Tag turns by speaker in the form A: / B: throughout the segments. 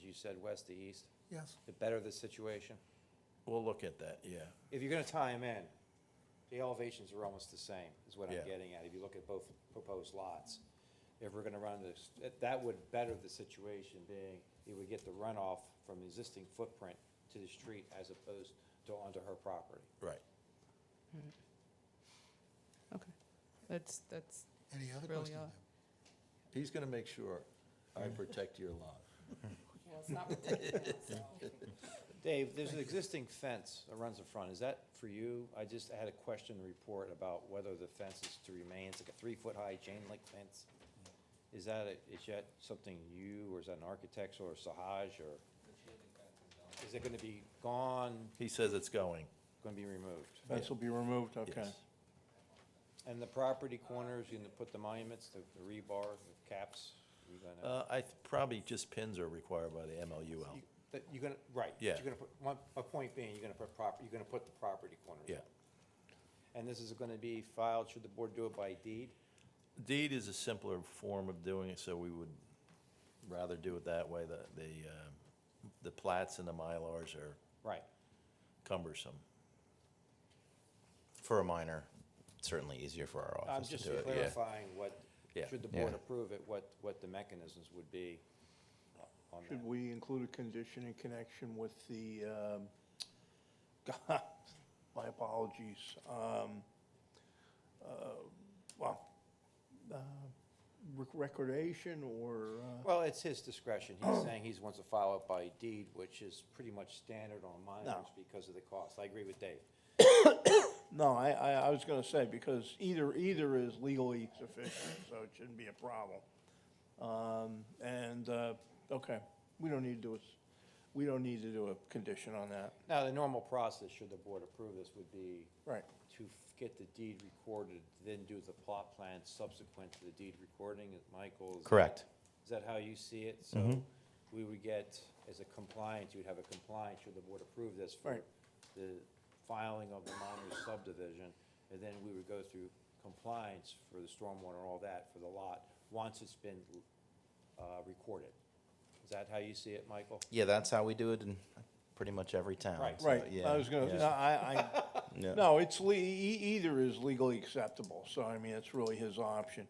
A: you said west to east,
B: Yes.
A: to better the situation?
C: We'll look at that, yeah.
A: If you're gonna tie them in, the elevations are almost the same, is what
C: Yeah.
A: I'm getting at, if you look at both proposed lots. If we're gonna run this, that- that would better the situation, being it would get the runoff from the existing footprint to the street as opposed to onto her property.
C: Right.
D: Okay, that's, that's,
B: Any other
D: Really,
B: questions?
D: uh,
B: ma'am?
C: He's gonna make sure I protect your lawn.
E: Well, it's not ridiculous, so.
A: Dave, there's an existing fence that runs in front, is that for you? I just had a question report about whether the fence is to remain, it's like a three-foot-high chain link fence. Is that, a- is that something you, or is that an architect, or Sahaj, or? Is it gonna be gone,
C: He says it's going,
A: gonna be removed?
F: Fence will be removed, okay.
C: yes.
A: And the property corners, you gonna put the monuments, the the rebar, the caps, you gonna,
C: Uh, I, th- probably just pins are required by the MLUL.
A: you- that- you're gonna, right.
C: Yeah.
A: You're gonna put, my, my point being, you're gonna put proper, you're gonna put the property corners.
C: Yeah.
A: up. And this is gonna be filed, should the board do it by deed?
C: Deed is a simpler form of doing it, so we would rather do it that way. The, the, uh, the plats and the mylars are
A: Right.
C: cumbersome.
G: For a minor, it's certainly easier for our
A: I'm
G: office to
A: just
G: do it, yeah.
A: clarifying what,
C: Yeah.
A: should the board
G: Yeah.
A: approve it, what, what the mechanisms would be on that.
F: Should we include a condition in connection with the, um, God, my apologies, um, uh, well, uh, rec- recordation or, uh,
A: Well, it's his discretion. He's saying he wants to file it by deed, which is pretty much standard on minors because of the cost. I agree with Dave.
F: no, I, I, I was gonna say, because either, either is legally sufficient, so it shouldn't be a problem. Um, and, uh, okay, we don't need to do a, s- we don't need to do a condition on that,
A: Now, the normal process, should the board approve this, would be
F: right?
A: to f- get the deed recorded, then do the plot plan subsequent to the deed recording, is Michael? is that-
G: Correct.
A: Is that how you see it? So we would get, as a compliance, you'd have a compliance, should the board approve this for
F: Right.
A: the filing of the minor subdivision, and then we would go through compliance for the stormwater and all that for the lot, once it's been uh, recorded. Is that how you see it, Michael?
G: Yeah, that's how we do it in pretty much every town.
A: Right.
G: so,
F: Right,
G: yeah,
F: I was gonna, no,
G: yeah,
F: I,
G: yeah.
F: I, no, it's le, e- either is legally acceptable, so I mean, it's really his option.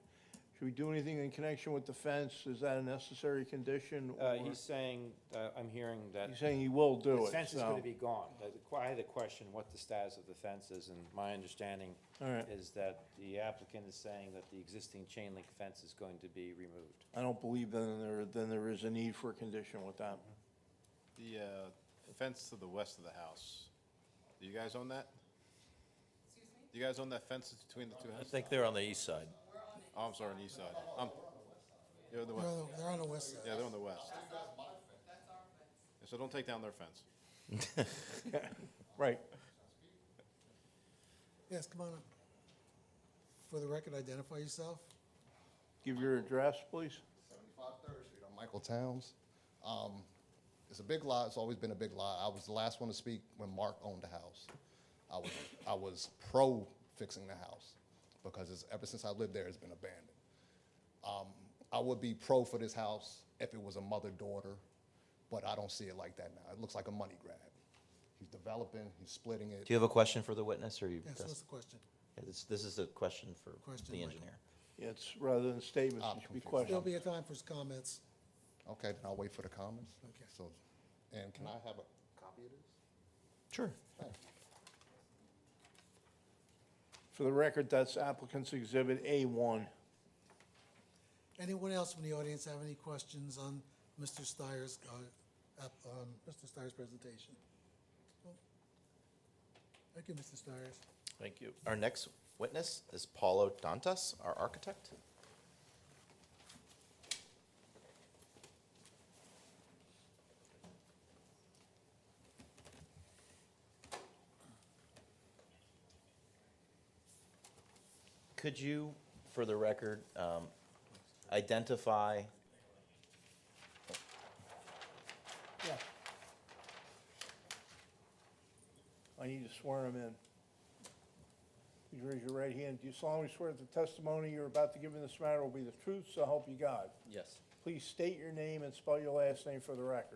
F: Should we do anything in connection with the fence, is that a necessary condition?
A: Uh,
F: or-
A: He's saying, uh, I'm hearing that.
F: He's saying he will do
A: The
F: it,
A: fence is
F: so-
A: gonna be gone. The- the que- I had a question, what the status of the fence is, and my understanding
F: All right.
A: is that the applicant is saying that the existing chain link fence is going to be removed.
F: I don't believe then there, then there is a need for a condition with that.
H: The uh, fence to the west of the house, do you guys own that? Do you guys own that fence that's between the two
C: I
H: houses?
C: think they're on the east side.
H: Oh, I'm sorry, on the east side. I'm, you're on the
B: They're
H: west.
B: on the- They're on the west side.
H: Yeah, they're on the west. So don't take down their fence.
F: Right,
B: Yes, come on up. For the record, identify yourself.
F: give your address, please.
I: 75 Third Street, I'm Michael Towns. Um, It's a big lot, it's always been a big lot. I was the last one to speak when Mark owned the house. I was, I was pro fixing the house, because it's, ever since I lived there, it's been abandoned. Um, I would be pro for this house if it was a mother-daughter, but I don't see it like that now. It looks like a money grab. He's developing, he's splitting it.
G: Do you have a question for the witness, or you?
B: Yes,
G: press-
B: what's the question?
G: Yeah, This, this is a question for
B: Question,
G: the
B: Michael.
G: engineer.
F: It's rather than statements,
I: I'm
F: it should be
I: confused.
B: There'll
F: questions.
B: be a time for comments.
I: Okay, then I'll wait for the comments.
B: Okay.
I: So, and can I have a copy of this?
G: Sure.
F: For the record, that's applicant's exhibit A1.
B: Anyone else from the audience have any questions on Mr. Steyer's, uh, app- on Mr. Steyer's presentation? Well, Thank you, Mr. Steyers.
C: Thank you.
G: Our next witness is Paulo Dantas, our architect. Could you, for the record, um, identify
F: Yeah. I need to swear him in. Please raise your right hand. Do you solemnly swear that the testimony you're about to give in this matter will be the truth, so help you God?
C: Yes.
F: Please state your name and spell your last name for the record.